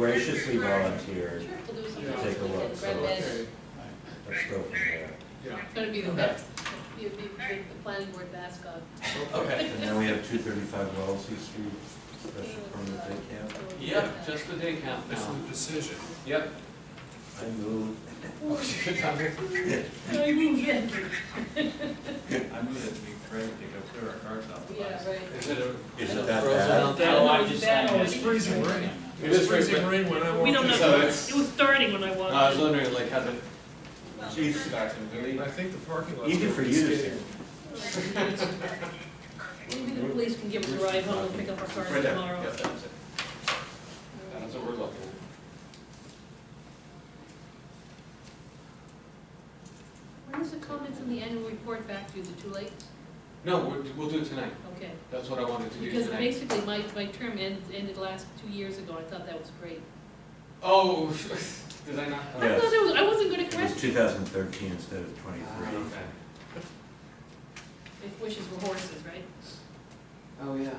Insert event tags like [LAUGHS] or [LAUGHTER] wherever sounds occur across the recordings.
graciously volunteered. We'll do something Yeah. else. Take a look, so- Recommend. Okay, I- Let's go from there. yeah, It's gonna be the Okay. best, you'd be the the planning board mascot. Okay. And then we have two thirty-five Wellesley Street, special permit day camp. Yep, just the day count This is now. the decision. Yep. I move, I mean, yeah, I move that we pray to go clear our cards out. the Yeah, last- right. Is it a? Is it frozen that bad? That out there? one- Oh, I just- that It's freezing rain. It It was is freezing freezing rain when I We walked don't know, So in. it's- Uh, it was starting when I No, I walked. was wondering like how the Chiefs got to really. I think the parking lot's. Easy for gonna be you to skating. Maybe the police can give us a ride home and pick up our cars Right there. tomorrow. Yes, that was it. That's what we're looking. for. When is the comments in the annual report back to you, is it too late? No, we'll, we'll do it tonight. Okay, That's what I wanted to do because tonight. basically my, my term ended, ended last two years ago, I thought that was great. Oh, [LAUGHS] did I not? I thought that was, I wasn't gonna it was question, two thousand thirteen instead of Ah, twenty-three. okay. if wishes were horses, right? Oh, yeah.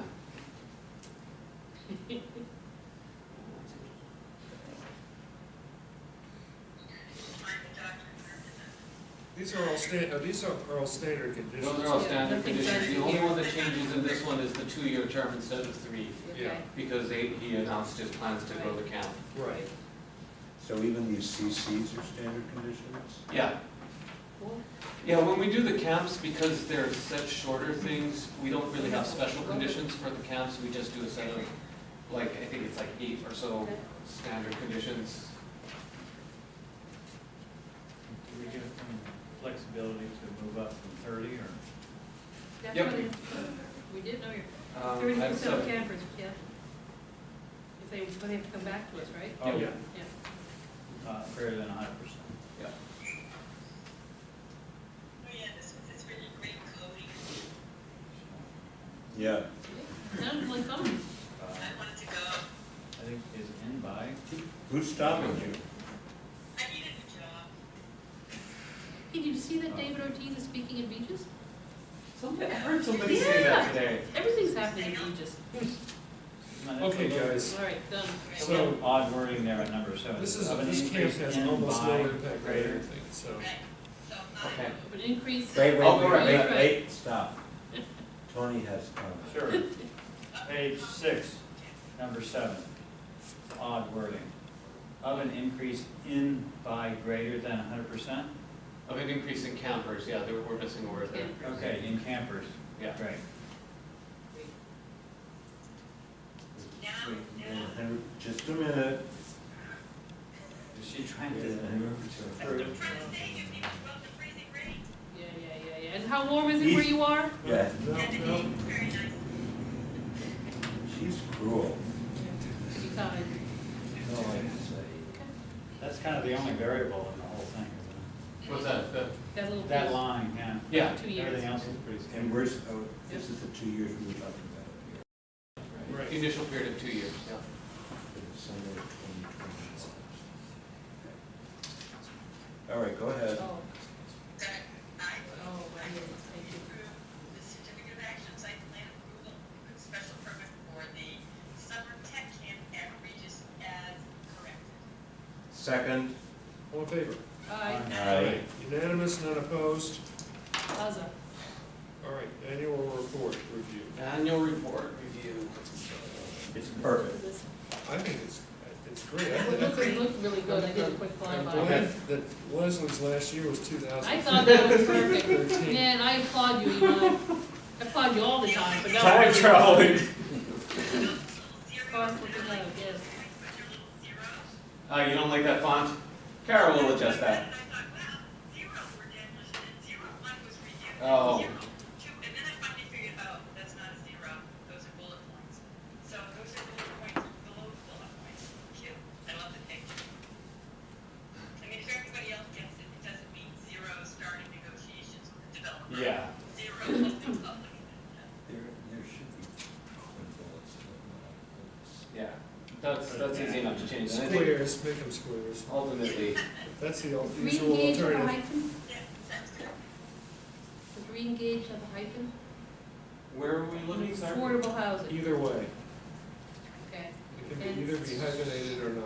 These are all sta, uh, these are are all standard Those conditions. are all Yeah, standard nothing conditions. The fancy only here. one that changes in this one is the two-year term instead of three, Okay. because they, he announced his plans to grow the count. Right. So even these CCs are standard conditions? Yeah, Cool. yeah, when we do the camps, because they're such shorter things, we don't really have special conditions for the camps. We just do a set of, like, I think it's like eight or so Okay. standard conditions. Do we give them flexibility to move up from thirty or? That's Yep. what it- We did know your Um, Thirty I have percent seven. of campers, yeah. If they, but they have to come back to us, right? Oh, Yeah. Yeah. Yeah. Uh, greater than hundred percent. Oh, Yeah. Sounds like fun. I Uh, think is in by, Who's stopping you? Hey, did you see that David Ortiz is speaking at Beaches? Somebody, I heard somebody say that Yeah. today. Everything's happening at Beaches. No, that's a Okay, little- guys, All right, done. It's a little odd wording there at number seven. this is, Of an this camp increase has in almost no by impact on greater- anything, so. um, Okay. But increase. Wait, wait, Oh, wait, right, wait, right. wait, [LAUGHS] stop. Tony has comments. Sure. Page six, number seven, It's odd wording. Of an increase in by greater than hundred percent? Of an increase in campers, yeah, there, we're missing a word there. Okay, in campers, Yeah. great. Wait, wait, Henry, Just a minute. Is she trying Wait, to? Henry. [LAUGHS] Yeah, yeah, yeah, yeah. And how warm is it where you are? Yeah, No, no, she's cruel. Be kind. That's all I can say. That's kind of the only variable in the whole thing, isn't What's that? The- That little it? That piece, line, yeah. Yeah. two years. Everything else is pretty And standard. we're, s- oh, this is the two years we were talking about here. right. Initial period of two years, yeah. for the summer of 2021. All right, go ahead. Oh, oh, I right, yes, thank you. approve the certificate of action site plan approval, special permit for the summer tech camp at Regis as corrected. Second. all in favor? Aye, Aye. Unanimous, none opposed? Plaza. All right, annual report review. Annual report review. It's perfect. This- I think it's, it's great. I It think- looked, it looked really good. I did a quick I'm flyby. glad that Leslie's last year was two thousand. I thought that was perfect. Man, I applaud you, you know. I applaud you all the time, but now. Time traveling. Oh, Cars will come out, yes. [LAUGHS] Uh, you don't like that font? Kara will adjust that. And I thought, wow, zero were demolition and zero one was reused. and Oh. zero two- and then I finally figured out, that's not a zero, those are bullet points. So those are bullet points below bullet points. Cute, I love the picture. I mean, if everybody else gets it, it doesn't mean zero starting negotiations with the developer. Yeah. Zero something public. There, there should be twin bullets. but Yeah, that's, that's easy enough to change. And I think Squares, make them squares. ultimately, That's the old Three usual gauge of a alternative. hyphen, Yeah, sounds good. the green gauge of a hyphen, where are we looking, sir? affordable housing, Either way, okay. it can be either be hyphenated or